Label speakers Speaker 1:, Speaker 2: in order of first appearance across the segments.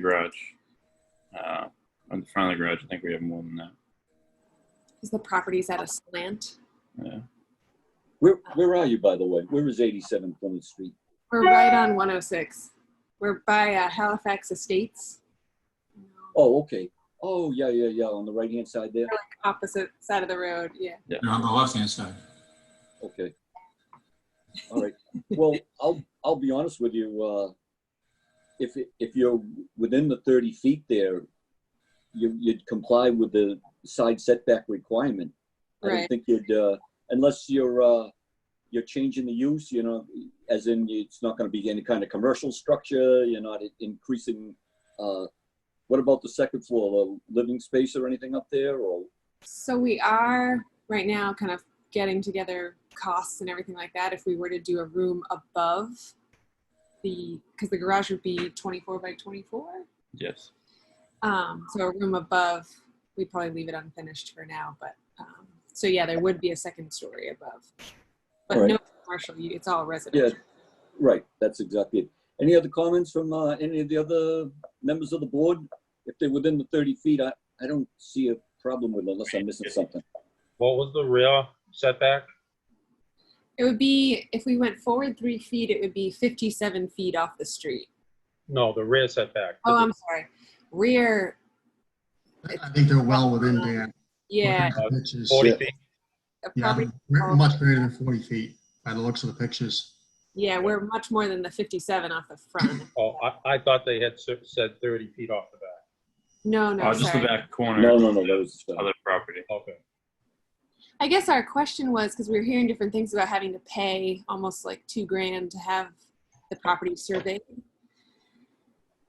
Speaker 1: garage. Uh, on the front of the garage, I think we have more than that.
Speaker 2: Because the property's at a slant.
Speaker 1: Yeah.
Speaker 3: Where, where are you, by the way? Where is 87 Plymouth Street?
Speaker 2: We're right on 106. We're by uh, Halifax Estates,
Speaker 3: Oh, okay. Oh, yeah, yeah, yeah, on the right-hand side there?
Speaker 2: opposite side of the road. Yeah.
Speaker 4: They're on the left-hand side.
Speaker 3: Okay. All right. Well, I'll, I'll be honest with you, uh, if, it- if you're within the 30 feet there, you, you'd comply with the side setback requirement. I don't
Speaker 2: Right.
Speaker 3: think you'd, uh, unless you're, uh, you're changing the use, you know, as in it's not gonna be any kind of commercial structure, you're not increasing, uh, what about the second floor, a living space or anything up there, or?
Speaker 2: So we are right now kind of getting together costs and everything like that. If we were to do a room above the, because the garage would be 24 by 24.
Speaker 1: Yes.
Speaker 2: Um, so a room above, we'd probably leave it unfinished for now, but, um, so yeah, there would be a second story above. But
Speaker 3: Alright.
Speaker 2: no commercial, you- it's all residential.
Speaker 3: Right, that's exactly it. Any other comments from uh, any of the other members of the board? If they're within the 30 feet, I, I don't see a problem with it unless I'm missing something.
Speaker 5: What was the rear setback?
Speaker 2: It would be, if we went forward three feet, it would be fifty-seven feet off the street.
Speaker 5: No, the rear setback.
Speaker 2: Oh, I'm sorry, rear,
Speaker 6: I think they're well within Dan.
Speaker 2: yeah,
Speaker 6: Looking at the pictures.
Speaker 5: Forty
Speaker 3: Yeah.
Speaker 5: feet.
Speaker 2: uh,
Speaker 6: Yeah,
Speaker 2: probably,
Speaker 6: we're much greater than 40 feet by the looks of the pictures.
Speaker 2: yeah, we're much more than the fifty-seven off the front.
Speaker 5: Oh, I, I thought they had cer- said thirty feet off the back.
Speaker 2: No,
Speaker 1: Oh,
Speaker 2: no,
Speaker 1: just the
Speaker 2: sorry.
Speaker 1: back corner.
Speaker 3: No, no, no, that was,
Speaker 1: Other property.
Speaker 5: Okay.
Speaker 2: I guess our question was, because we were hearing different things about having to pay almost like two grand to have the property surveyed.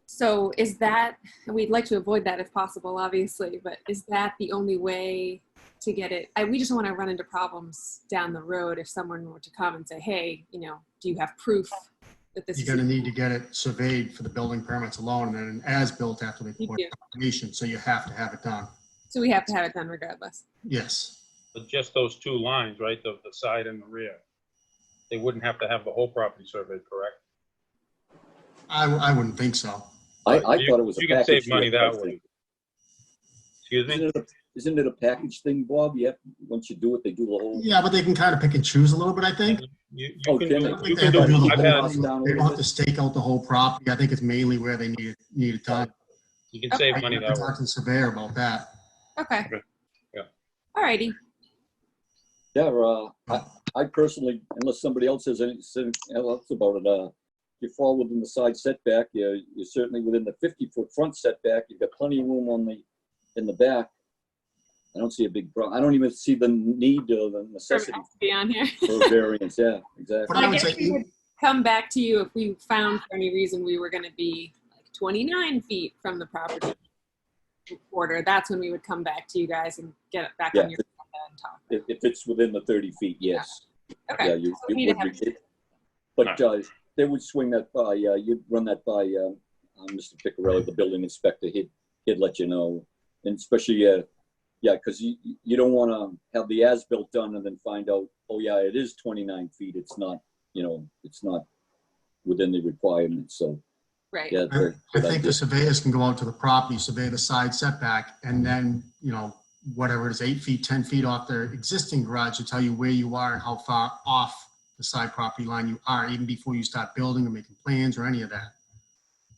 Speaker 2: So is that, and we'd like to avoid that if possible, obviously, but is that the only way to get it? I, we just don't want to run into problems down the road if someone were to come and say, hey, you know, do you have proof that this
Speaker 6: You're
Speaker 2: is?
Speaker 6: gonna need to get it surveyed for the building permits alone and then as-built after they
Speaker 2: You
Speaker 6: pour
Speaker 2: do.
Speaker 6: foundation, so you have to have it done.
Speaker 2: So we have to have it done regardless.
Speaker 6: Yes,
Speaker 5: But just those two lines, right, the, the side and the rear. They wouldn't have to have the whole property surveyed, correct?
Speaker 6: I, w- I wouldn't think so.
Speaker 3: I, I
Speaker 5: You-
Speaker 3: thought it was a
Speaker 5: You can
Speaker 3: package.
Speaker 5: save money
Speaker 3: deal, I
Speaker 5: that way.
Speaker 3: think.
Speaker 5: Excuse
Speaker 3: Isn't
Speaker 5: me?
Speaker 3: it a- Isn't it a package thing, Bob? You have, once you do it, they do the whole.
Speaker 6: Yeah, but they can kind of pick and choose a little bit, I think.
Speaker 5: You,
Speaker 3: Oh,
Speaker 5: you can
Speaker 3: Jimmy.
Speaker 5: do,
Speaker 6: I
Speaker 5: you
Speaker 6: think they
Speaker 5: can
Speaker 6: have
Speaker 5: do,
Speaker 6: to do the
Speaker 5: I've
Speaker 6: whole
Speaker 5: had,
Speaker 6: house. They don't have to stake out the whole property. I think it's mainly where they need, it need it done.
Speaker 5: you can save
Speaker 6: I
Speaker 5: money
Speaker 6: can
Speaker 5: that way.
Speaker 6: talk to the surveyor about that.
Speaker 2: Okay.
Speaker 1: Okay.
Speaker 5: Yeah.
Speaker 2: Alrighty,
Speaker 3: Yeah, uh, I, I personally, unless somebody else has anything else about it, uh, you fall within the side setback, you're, you're certainly within the fifty-foot front setback, you've got plenty of room on the, in the back. I don't see a big problem, I don't even see the need or the
Speaker 2: Perfect
Speaker 3: necessity
Speaker 2: to be on here.
Speaker 3: for a variance, yeah,
Speaker 6: But
Speaker 3: exactly.
Speaker 6: I
Speaker 2: I
Speaker 6: would
Speaker 2: guess
Speaker 6: say,
Speaker 2: we would come back to you if we found for any reason we were gonna be like twenty-nine feet from the property border, that's when we would come back to you guys and get it back on
Speaker 3: Yeah.
Speaker 2: your agenda and talk.
Speaker 3: If, if it's within the thirty feet, yes. Yeah,
Speaker 2: Okay,
Speaker 3: you,
Speaker 2: So we need
Speaker 3: you
Speaker 2: to
Speaker 3: would,
Speaker 2: have-
Speaker 3: re- but, uh, they would swing that by, uh, you'd run that by, um, uh, Mr. Picarelli, the building inspector, he'd, he'd let you know. And especially, uh, yeah, because you, you don't want to have the as-built done and then find out, oh, yeah, it is 29 feet, it's not, you know, it's not within the requirements, so,
Speaker 2: right,
Speaker 3: yeah.
Speaker 6: I
Speaker 3: they're-
Speaker 6: I
Speaker 3: they're
Speaker 6: think the
Speaker 3: like-
Speaker 6: surveyors can go out to the property, survey the side setback, and then, you know, whatever it is, eight feet, 10 feet off their existing garage to tell you where you are and how far off the side property line you are, even before you start building or making plans or any of that.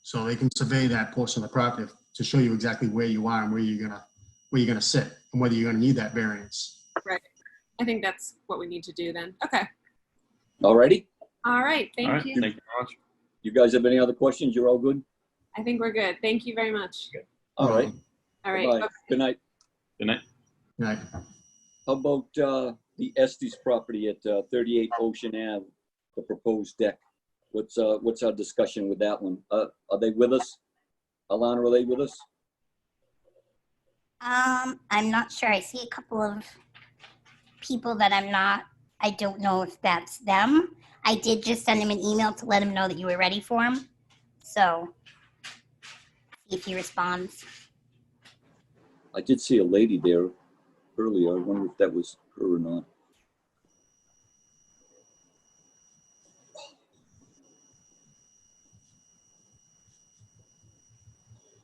Speaker 6: So they can survey that portion of the property to show you exactly where you are and where you're gonna, where you're gonna sit and whether you're gonna need that variance.
Speaker 2: I think that's what we need to do then, okay,
Speaker 3: All righty,
Speaker 2: alright,
Speaker 1: All right,
Speaker 2: thank you,
Speaker 1: Thank you very much.
Speaker 3: you guys have any other questions, you're all good?
Speaker 2: I think we're good, thank you very much,
Speaker 3: All right,
Speaker 2: alright,
Speaker 3: Bye-bye.
Speaker 2: okay.
Speaker 3: good night.
Speaker 1: Good night.
Speaker 6: Right.
Speaker 3: How about, uh, the Estes property at uh, 38 Ocean Ave, the proposed deck? What's, uh, what's our discussion with that one? Uh, are they with us? Alana, are they with us?
Speaker 7: Um, I'm not sure. I see a couple of people that I'm not, I don't know if that's them. I did just send him an email to let him know that you were ready for him. So, see if he responds.
Speaker 3: I did see a lady there earlier. I wonder if that was her or not.